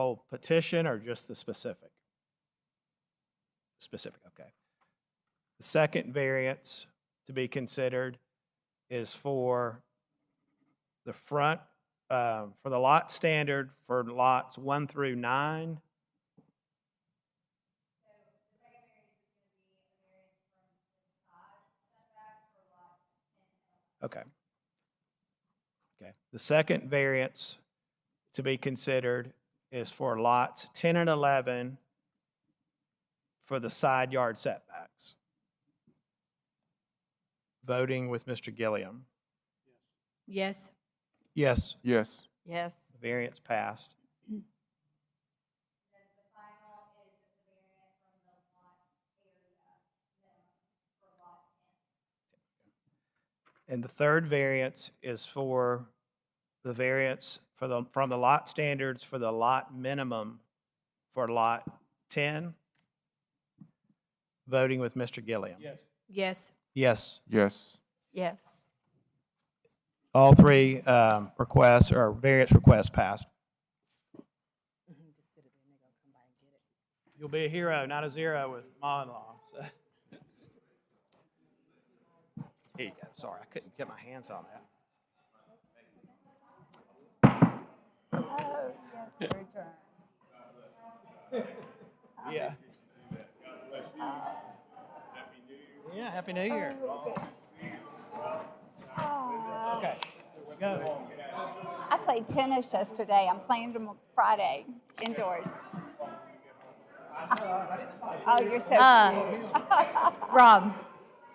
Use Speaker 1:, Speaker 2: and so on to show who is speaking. Speaker 1: whole petition or just the specific? Specific, okay. The second variance to be considered is for the front, uh, for the lot standard for lots one through nine. Okay. Okay. The second variance to be considered is for lots 10 and 11 for the side yard setbacks. Voting with Mr. Gilliam.
Speaker 2: Yes.
Speaker 1: Yes.
Speaker 3: Yes.
Speaker 2: Yes.
Speaker 1: Variance passed. And the third variance is for the variance for the, from the lot standards for the lot minimum for lot 10. Voting with Mr. Gilliam.
Speaker 2: Yes.
Speaker 1: Yes.
Speaker 3: Yes.
Speaker 2: Yes.
Speaker 1: All three um, requests or variance requests passed. You'll be a hero, not a zero with monologue. so. Here you go. Sorry, I couldn't get my hands on that. Yeah. Yeah, Happy New Year. Okay, go.
Speaker 4: I played tennis yesterday. I'm playing tomorrow, Friday indoors. Oh, you're so
Speaker 5: Uh, Rob,